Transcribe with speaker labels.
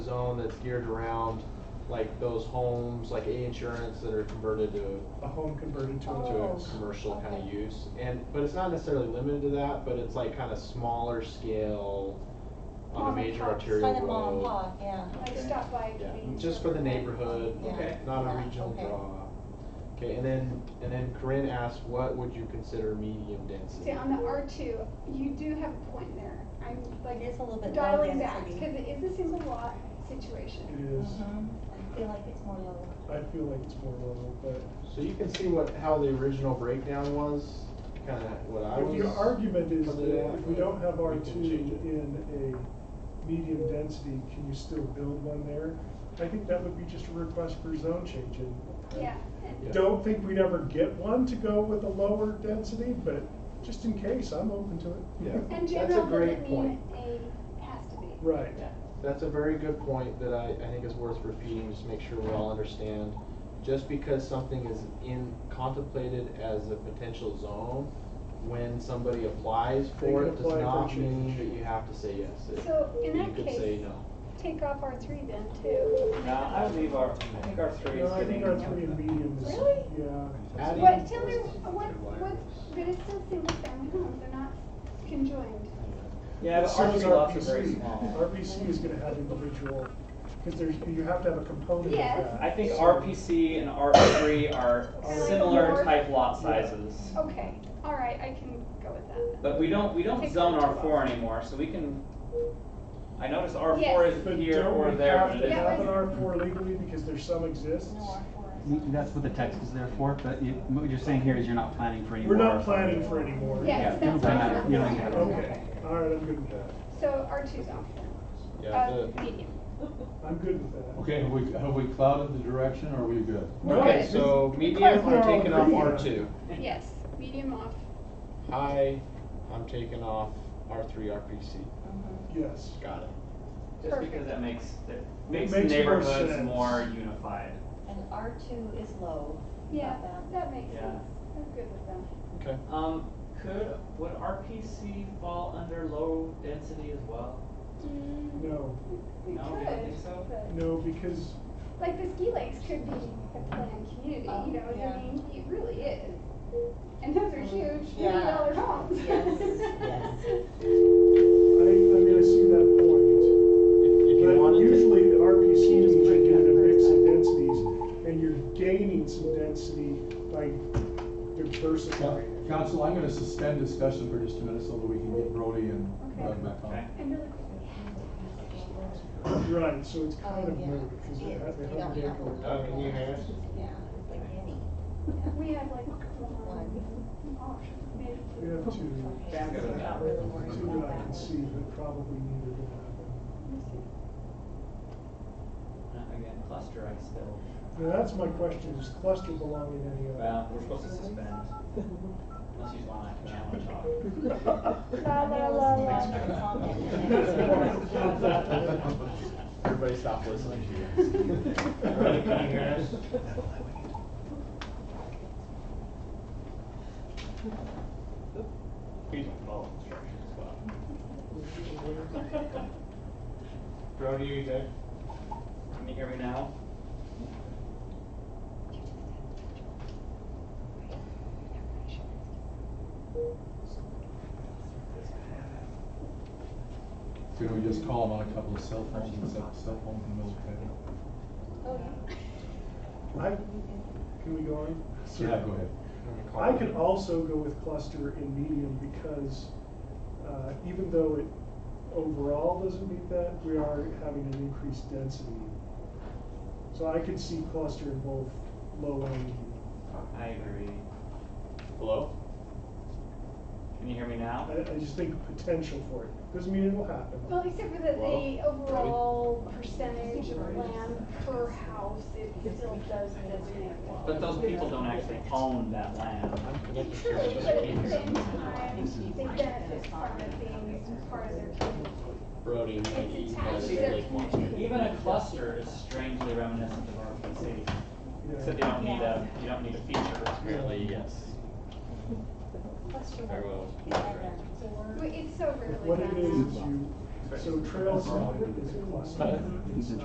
Speaker 1: zone that's geared around like those homes, like A insurance that are converted to,
Speaker 2: a home converted to
Speaker 1: to
Speaker 2: a.
Speaker 1: a
Speaker 3: Oh,
Speaker 1: commercial kind of
Speaker 3: okay.
Speaker 1: use. And, but it's not necessarily limited to that, but it's like kind of smaller scale on a
Speaker 3: Mom and
Speaker 1: major
Speaker 3: pop,
Speaker 1: arterial road.
Speaker 3: Kind of mom and pop, yeah.
Speaker 4: Like
Speaker 2: Okay.
Speaker 4: stop by.
Speaker 1: Yeah,
Speaker 4: convenience
Speaker 1: just for the
Speaker 4: store.
Speaker 1: neighborhood,
Speaker 3: Yeah.
Speaker 2: Okay.
Speaker 1: not a
Speaker 3: Yeah,
Speaker 1: regional
Speaker 3: okay.
Speaker 1: draw. Okay, and then, and then Corinne asked, what would you consider medium density?
Speaker 4: See, on the R two, you do have a point there. I'm
Speaker 3: It
Speaker 4: like
Speaker 3: is a little bit low
Speaker 4: dialing back,
Speaker 3: density.
Speaker 4: cause it is a single lot situation.
Speaker 2: It is,
Speaker 4: Uh-huh.
Speaker 3: Mhm. I feel like it's more low.
Speaker 2: I feel like it's more level, but
Speaker 1: So you can see what, how the original breakdown was, kinda what I
Speaker 2: if
Speaker 1: was.
Speaker 2: your argument is
Speaker 1: Other
Speaker 2: that
Speaker 1: than
Speaker 2: if we
Speaker 1: that,
Speaker 2: don't have
Speaker 1: we
Speaker 2: R
Speaker 1: can
Speaker 2: two
Speaker 1: change it.
Speaker 2: in a medium density, can you still build one there? I think that would be just a request for zone change and. I
Speaker 4: Yeah, and
Speaker 1: Yeah.
Speaker 2: Don't think we'd ever get one to go with a lower density, but just in case, I'm open to it.
Speaker 1: Yeah.
Speaker 4: and
Speaker 1: That's a
Speaker 4: general
Speaker 1: great
Speaker 4: doesn't mean
Speaker 1: point.
Speaker 4: a has to be.
Speaker 2: Right.
Speaker 1: That's a very good point that I, I think is worth repeating, just make sure we all understand. Just because something is in, contemplated as a potential zone, when somebody applies
Speaker 2: They
Speaker 1: for
Speaker 2: can
Speaker 1: it, does
Speaker 2: apply for
Speaker 1: not mean
Speaker 2: change.
Speaker 1: that you have to say yes. It-
Speaker 4: So, in that
Speaker 1: You could say
Speaker 4: case- uh,
Speaker 1: no.
Speaker 4: Take off R three then too.
Speaker 5: No, I would leave our, I think our three is
Speaker 2: No, I
Speaker 5: getting.
Speaker 2: think R three and medium is,
Speaker 4: Really?
Speaker 2: yeah.
Speaker 1: Adding-
Speaker 4: What, tell me, what, what, but it's still single family homes, they're not conjoined.
Speaker 5: Yeah, but
Speaker 2: So
Speaker 5: our
Speaker 2: is
Speaker 5: three lots are very
Speaker 2: RBC.
Speaker 5: small.
Speaker 2: RBC is gonna have individual, because there's, you have to have a component of
Speaker 4: Yes.
Speaker 2: that.
Speaker 5: I think
Speaker 2: So-
Speaker 5: RPC and R three are
Speaker 4: Kinda like
Speaker 5: similar
Speaker 4: more-
Speaker 5: type lot
Speaker 2: Yeah.
Speaker 5: sizes.
Speaker 4: Okay, all right, I can go with that.
Speaker 5: But we don't, we don't
Speaker 4: Take
Speaker 5: zone
Speaker 4: them
Speaker 5: R
Speaker 4: to
Speaker 5: four
Speaker 4: us.
Speaker 5: anymore, so we can, I noticed R four
Speaker 4: Yes.
Speaker 5: is
Speaker 2: But
Speaker 5: here or
Speaker 2: don't we
Speaker 5: there,
Speaker 2: have
Speaker 5: but it
Speaker 2: to have
Speaker 5: is.
Speaker 2: an R four legally, because there's some exists?
Speaker 3: No R four is-
Speaker 6: Mm, That's what the text is there for, but you, what you're saying here is you're not planning for any
Speaker 2: We're
Speaker 6: more.
Speaker 2: not planning for any more.
Speaker 4: Yes,
Speaker 6: Yeah,
Speaker 4: that's
Speaker 6: you don't
Speaker 4: what
Speaker 6: have-
Speaker 4: I'm
Speaker 6: you don't have-
Speaker 2: Okay, all right, I'm good with that.
Speaker 4: So R two's off then,
Speaker 1: Yeah,
Speaker 4: uh,
Speaker 1: the-
Speaker 4: medium.
Speaker 2: I'm good with that.
Speaker 7: Okay, have we, have we clouded the direction, or are we good?
Speaker 5: Okay,
Speaker 4: Good.
Speaker 1: so medium,
Speaker 2: Because we're
Speaker 1: I'm taking off
Speaker 2: all
Speaker 1: R
Speaker 2: agreeing.
Speaker 1: two.
Speaker 4: Yes, medium off.
Speaker 1: High, I'm taking off R three RPC.
Speaker 3: Mhm.
Speaker 2: Yes.
Speaker 1: Got it.
Speaker 5: Just
Speaker 4: Perfect.
Speaker 5: because that makes, that
Speaker 2: makes
Speaker 5: makes
Speaker 2: more
Speaker 5: neighborhoods
Speaker 2: sense.
Speaker 5: more unified.
Speaker 3: And R two is low.
Speaker 4: Yeah,
Speaker 3: Not
Speaker 4: that makes
Speaker 5: Yeah.
Speaker 4: sense. I'm good with that.
Speaker 1: Okay.
Speaker 5: Um, could, would RPC fall under low density as well?
Speaker 3: Mm.
Speaker 2: No,
Speaker 4: We
Speaker 5: No, you don't think so?
Speaker 4: could, but,
Speaker 2: no, because,
Speaker 4: like the ski lakes could be a planned community, you know
Speaker 3: Oh,
Speaker 4: what
Speaker 3: yeah. Mm.
Speaker 4: I mean? It really is. And those are huge,
Speaker 3: Yeah.
Speaker 4: million dollar homes.
Speaker 3: Yes, yes.
Speaker 2: I, I'm gonna see that point.
Speaker 1: If you
Speaker 2: But
Speaker 1: wanted to,
Speaker 2: usually the RPC is
Speaker 3: Just break
Speaker 2: making a
Speaker 3: that
Speaker 2: mix
Speaker 3: first
Speaker 2: of
Speaker 3: up.
Speaker 2: densities, and you're gaining some density by
Speaker 7: Coun-
Speaker 2: diversifying.
Speaker 7: Council, I'm gonna suspend discussion for just a minute so that we can get Brody and Doug back on.
Speaker 5: Okay.
Speaker 4: And really quickly.
Speaker 2: Right, so it's kind
Speaker 3: Oh,
Speaker 2: of
Speaker 3: yeah.
Speaker 2: moot, because they
Speaker 3: It-
Speaker 2: have, they
Speaker 3: you
Speaker 2: have to
Speaker 3: don't have a lot
Speaker 1: Uh,
Speaker 3: of
Speaker 1: can you hear us?
Speaker 3: density. Yeah, it's like any.
Speaker 4: We have like one option, maybe
Speaker 2: We
Speaker 4: two.
Speaker 2: have two,
Speaker 3: Okay,
Speaker 5: Yeah, I'm good
Speaker 3: so
Speaker 5: with
Speaker 3: I'm
Speaker 5: that.
Speaker 3: not really worried
Speaker 2: two
Speaker 3: about
Speaker 2: that I
Speaker 3: that
Speaker 2: can
Speaker 3: one.
Speaker 2: see, but probably neither will happen.
Speaker 5: Uh, Again, cluster I still,
Speaker 2: Now, that's my question, does cluster belong in any
Speaker 5: well,
Speaker 2: other?
Speaker 5: we're supposed to suspend. Unless you just wanna challenge off.
Speaker 3: I'm gonna listen to the comment and then-
Speaker 1: everybody stop listening to you.
Speaker 5: Brody, can you hear us? We don't follow instructions well. Brody, are you there? Can you hear me now?
Speaker 7: Can we just call him on a couple of cell phones and set up cell phones in the middle of the table?
Speaker 3: Oh, yeah.
Speaker 2: I, can we go on?
Speaker 7: Yeah, go ahead.
Speaker 2: I could also go with cluster in medium because uh, even though it overall doesn't meet that, we are having an increased density. So I could see cluster in both low and medium.
Speaker 5: I agree.
Speaker 1: Hello?
Speaker 5: Can you hear me now?
Speaker 2: I, I just think potential for it. Doesn't mean it'll happen.
Speaker 4: Well, except for that the
Speaker 1: Well,
Speaker 4: overall percentage of land per house, it still does designate.
Speaker 5: But those people don't actually own that land.
Speaker 1: I'm connected to
Speaker 4: True,
Speaker 1: you,
Speaker 4: but
Speaker 1: just
Speaker 4: at
Speaker 1: can't
Speaker 4: the
Speaker 1: hear
Speaker 4: same
Speaker 1: you.
Speaker 4: time, they benefit from it being part of their community.
Speaker 1: Brody, you might
Speaker 4: It's
Speaker 1: be-
Speaker 4: attached to their community.
Speaker 5: Even a cluster is strangely reminiscent of RPC. Except you
Speaker 2: Yeah.
Speaker 5: don't need a, you don't need a feature.
Speaker 1: Apparently, yes.
Speaker 3: Cluster
Speaker 1: Very well.
Speaker 3: one. Yeah, I know. So we're-
Speaker 4: But It's so rarely.
Speaker 2: What it
Speaker 4: done
Speaker 2: is,
Speaker 4: now.
Speaker 2: is you, So trail side is a cluster.
Speaker 7: Mhm.
Speaker 2: It's